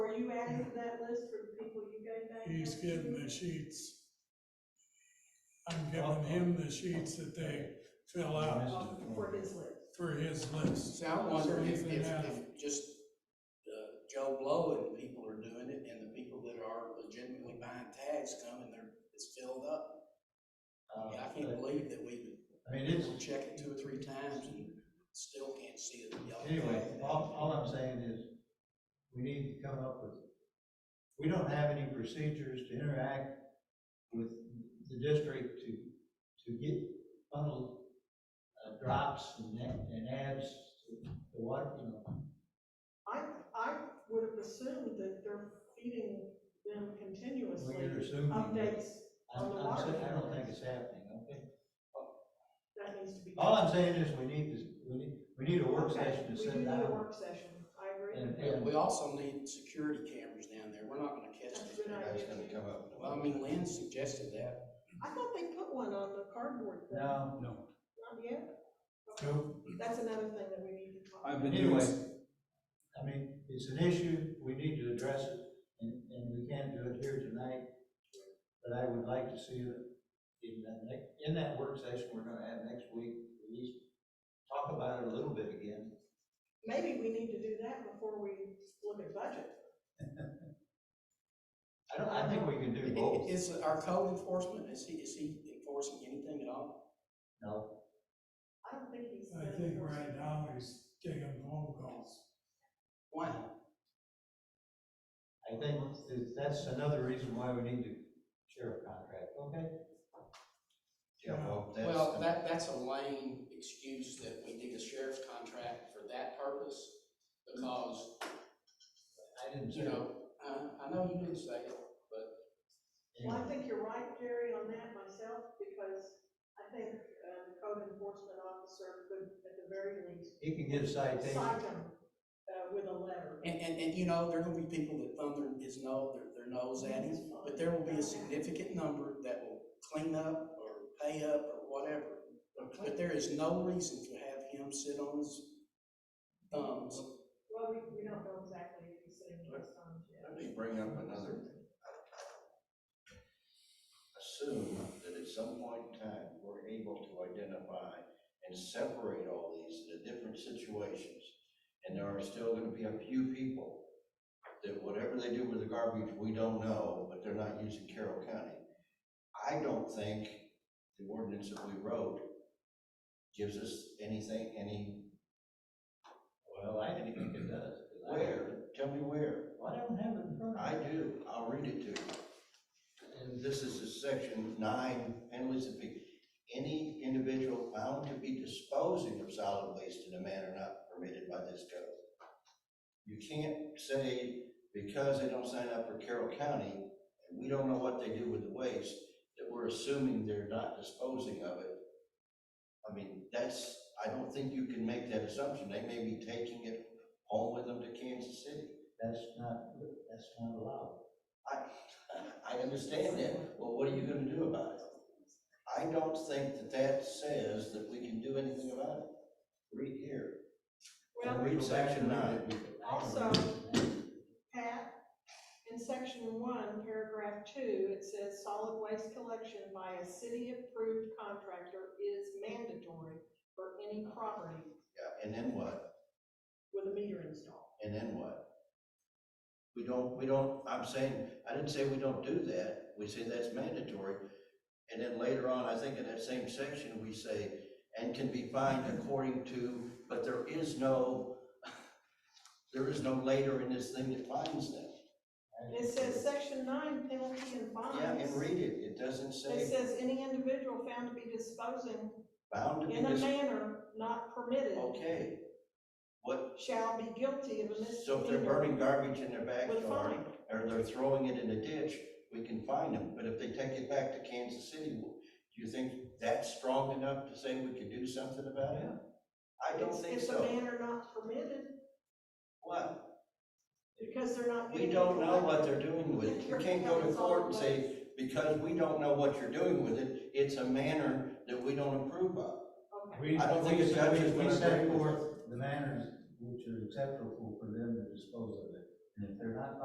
list for the people you gave back? He's there? getting the sheets. I'm giving him the sheets that they fill out Oh, For his list. for his list. See, I wonder So if, even if, now- if just uh, Joe Blow and people are doing it, and the people that are legitimately buying tags come and they're, it's filled up. I mean, I can't believe that we Um, I mean, would, it's, we check it two or three times and still can't see it. Y'all- anyway, all, all I'm saying is, we need to come up with, we don't have any procedures to interact with the district to, to get funnel uh, drops and, ad- and ads to the water, you know. I, I would have assumed that they're feeding them continuously We're assuming. updates. I'm, I'm, sa- I don't think it's happening, okay? That needs to be. All I'm saying is, we need to, we need, we need a work session to We do send need a out. work session, I agree. And, Yeah, and We also need security cameras down there. We're not gonna catch That's a it. good I was gonna idea. come up. Well, I mean, Lynn suggested that. I thought they put one on the cardboard thing. now, Not yet? Okay. Nope. That's another thing that we need to talk about. I've been doing, anyway, I mean, it's an issue, we need to address it, and, and we can't do it here tonight. But I would like to see that in that next, in that work session we're gonna have next week, at least talk about it a little bit again. Maybe we need to do that before we look at budget. I don't, I think we can do both, Is our code enforcement, is he, is he enforcing anything at all? no? I don't think he's. I think right now he's taking phone calls. Why? I think that- that's another reason why we need to sheriff contract, okay? Yeah, well, that's. Well, that, that's a lame excuse that we did a sheriff's contract for that purpose, because, I didn't say. you know, I, I know you didn't say it, Well, I think you're right, Jerry, on that myself, because I think, uh, the code enforcement officer could, at the very least, He can get a citation, cite him, uh, with a letter. and, and, and, you know, there are gonna be people that thumb their, his nose, their, their nose at him, but there will be a significant number that will clean up or pay up or whatever. But there is no reason to have him sit on his thumbs Well, we, we don't know exactly if he's sitting in his thumbs yet. Let me bring up another. Assume that at some point in time, we're able to identify and separate all these into different situations. And there are still gonna be a few people that whatever they do with the garbage, we don't know, but they're not using Carroll County. I don't think the ordinance that we wrote gives us anything, any, well, I didn't think it does. 'cause I- where, tell me where. Well, I don't have it in front of me. I do, I'll read it to you. And this is a section nine, penalties and fee. Any individual found to be disposing of solid waste in a manner not permitted by this code. You can't say, because they don't sign up for Carroll County, and we don't know what they do with the waste, that we're assuming they're not disposing of it. I mean, that's, I don't think you can make that assumption, they may be taking it home with them to Kansas City. That's not, that's not allowed. I, I understand that, well, what are you gonna do about it? I don't think that that says that we can do anything about it. Read here, Well, read section nine. also, Pat, in section one, paragraph two, it says solid waste collection by a city-approved contractor is mandatory for any property Yeah, and then what, with a meter installed. and then what? We don't, we don't, I'm saying, I didn't say we don't do that, we say that's mandatory. And then later on, I think in that same section, we say, and can be fined according to, but there is no, there is no later in this thing that fines them. It says section nine, penalty and fines. Yeah, and read it, it doesn't It say says any individual found to be disposing bound to be in a dis- manner not permitted Okay, what, shall be guilty of a so if they're burning misdemeanor garbage in their with a backyard, fine. or they're throwing it in a ditch, we can fine them, but if they take it back to Kansas City, do you think that's strong enough to say we could do something about it? I don't It's- think It's a so. manner not permitted What? because they're not. We being don't know what collected. they're doing with it. You can't go to court and say, because we don't know what you're doing with it, it's a manner that we don't approve of. Okay, We, I don't think the judge is we- gonna we set agree with forth The manners which are acceptable for them to dispose of it, and if they're not